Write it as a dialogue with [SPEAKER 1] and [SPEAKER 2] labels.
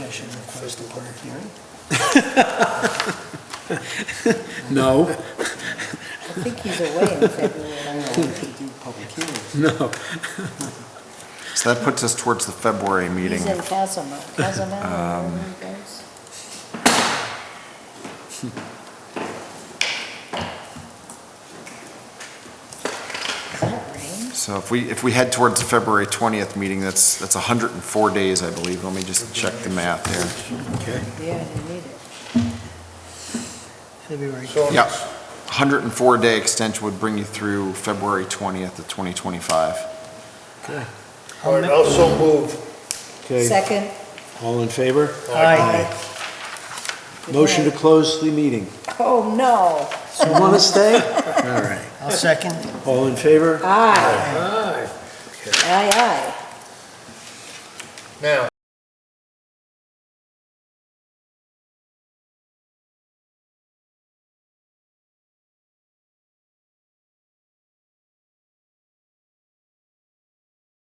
[SPEAKER 1] First and public hearing?
[SPEAKER 2] No,
[SPEAKER 3] I think he's away in February.
[SPEAKER 1] I don't know, we could do public hearings.
[SPEAKER 2] no.
[SPEAKER 4] So that puts us towards the February meeting. Um,
[SPEAKER 3] He's in Casamount, Casamount, wherever he goes. Is that rain?
[SPEAKER 4] So if we, if we head towards the February 20th meeting, that's, that's 104 days, I believe. Let me just check the math here.
[SPEAKER 2] Okay.
[SPEAKER 3] Yeah, they need it.
[SPEAKER 1] February.
[SPEAKER 4] Yep. 104-day extension would bring you through February 20th of 2025.
[SPEAKER 5] All right, I'll so move.
[SPEAKER 2] Okay,
[SPEAKER 3] Second.
[SPEAKER 2] all in favor?
[SPEAKER 3] Aye. Good
[SPEAKER 2] Motion to
[SPEAKER 3] night.
[SPEAKER 2] close the meeting.
[SPEAKER 3] Oh, no.
[SPEAKER 2] You want to stay? All right.
[SPEAKER 1] I'll second.
[SPEAKER 2] All in favor?
[SPEAKER 3] Aye,
[SPEAKER 5] Aye.
[SPEAKER 3] aye, aye.
[SPEAKER 5] Now,